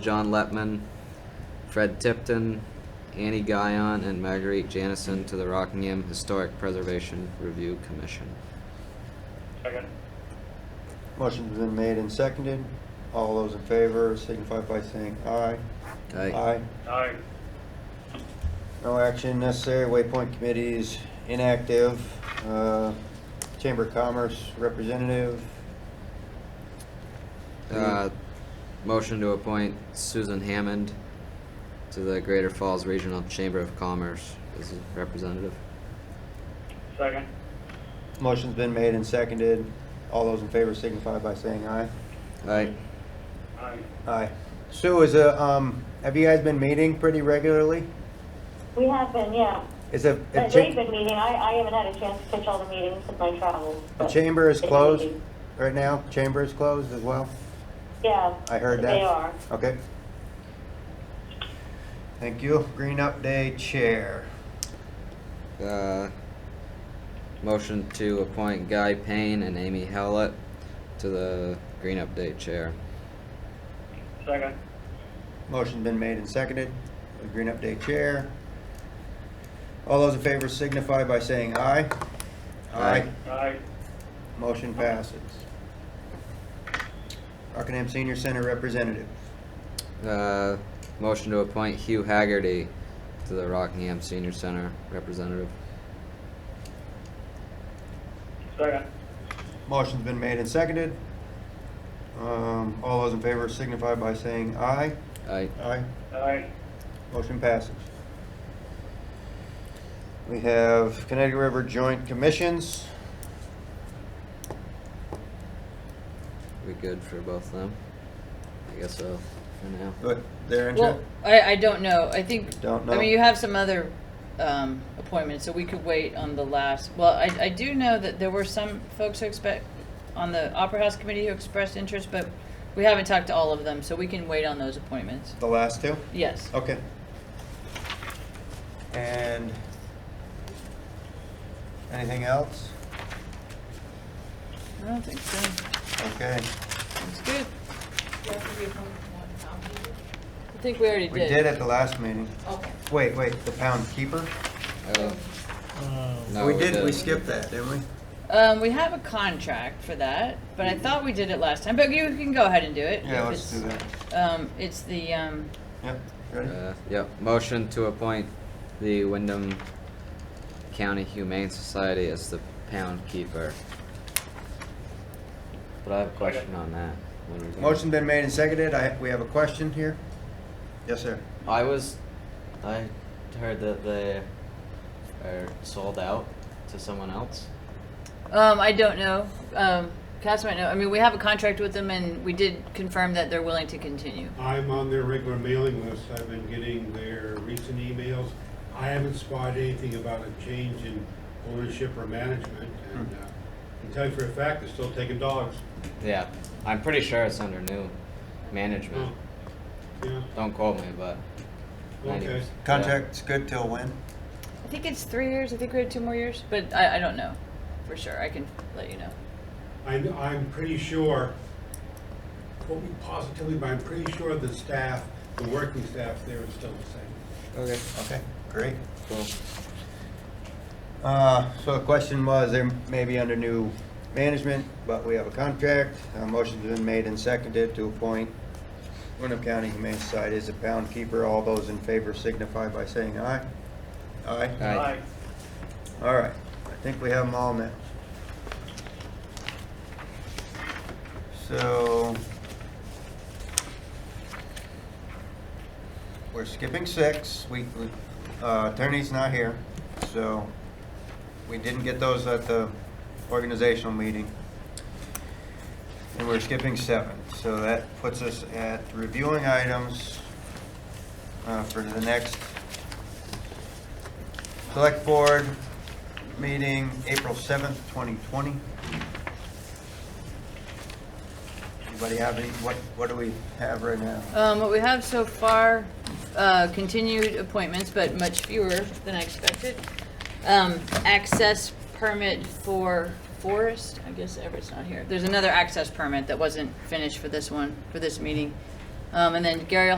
John Letman, Fred Tipton, Annie Guyon, and Marguerite Janison to the Rockingham Historic Preservation Review Commission. Second. Motion's been made and seconded. All those in favor signify by saying aye. Aye. Aye. No action necessary. Waypoint Committee is inactive. Uh, Chamber of Commerce Representative, Uh, Motion to appoint Susan Hammond to the Greater Falls Regional Chamber of Commerce as a representative. Second. motion's been made and seconded. All those in favor signify by saying aye. Aye. Aye. Aye. Sue, is a, um, have you guys been meeting pretty regularly? We have been, yeah. Is a, a But Uh, they've cha- been meeting, I, I haven't had a chance to catch all the meetings since my travels. the but chamber is they're closed meeting. right now? Chamber is closed as well? Yeah. I heard that. They are. Okay. Thank you. Green Up Day Chair. Uh, Motion to appoint Guy Payne and Amy Howlett to the Green Update Chair. Second. Motion's been made and seconded. for the Green Up Day Chair. All those in favor signify by saying aye. Aye. Aye. Motion passes. Rockingham Senior Center Representative. Uh, Motion to appoint Hugh Haggerty to the Rockingham Senior Center Representative. Second. Motion's been made and seconded. Um, all those in favor signify by saying aye. Aye. Aye. Aye. Motion passes. We have Connecticut River Joint Commissions. We good for both of them? I guess so, for now. But they're Well, interested. I, I don't know. I think. Don't I know. mean, you have some other um, appointments, so we could wait on the last. Well, I, I do know that there were some folks who expect on the Opera House Committee who expressed interest, but we haven't talked to all of them, so we can wait on those appointments. The last two? Yes. Okay. And anything else? I don't think so. Okay, That's good. I think we already we did. did at the last meeting. Okay. Wait, wait, the pound keeper? Oh. No, We did, we didn't. skipped that, didn't we? Um, we have a contract for that, but I thought we did it last time. But you can go ahead and do it. Yeah, if let's do it's- that. Um, it's the um, Yep, ready? Uh, Yep, motion to appoint the Wyndham County Humane Society as the pound keeper. But I have a question on that. When we go- Motion been made and seconded, I, we have a question here? Yes, sir. I was, I heard that they are sold out to someone else. Um, I don't know. Um, Cass might know. I mean, we have a contract with them, and we did confirm that they're willing to continue. I'm on their regular mailing list, I've been getting their recent emails. I haven't spotted anything about a change in ownership or management, and uh, I can tell you for a fact, they're still taking dogs. Yeah, I'm pretty sure it's under new management. Hmm. Yeah, Don't quote me, but. okay. Contract's good till when? I think it's three years. I think we had two more years, but I, I don't know for sure. I can let you know. I'm, I'm pretty sure, quote me positively, but I'm pretty sure the staff, the working staff there is still the same. Okay. Okay, great. Cool. Uh, so the question was, there may be under new management, but we have a contract. Uh, motion's been made and seconded to appoint Wyndham County Humane Society as a pound keeper. All those in favor signify by saying aye. Aye? Aye. Aye. All right, I think we have them all now. So we're skipping six. We, we- uh, attorney's not here, so we didn't get those at the organizational meeting. And we're skipping seven, so that puts us at reviewing items uh, for the next select board meeting, April 7th, 2020. Anybody have any, what, what do we have right now? Um, what we have so far, uh, continued appointments, but much fewer than I expected. Um, access permit for Forest, I guess Everett's not here. There's another access permit that wasn't finished for this one, for this meeting. Um, and then Gary will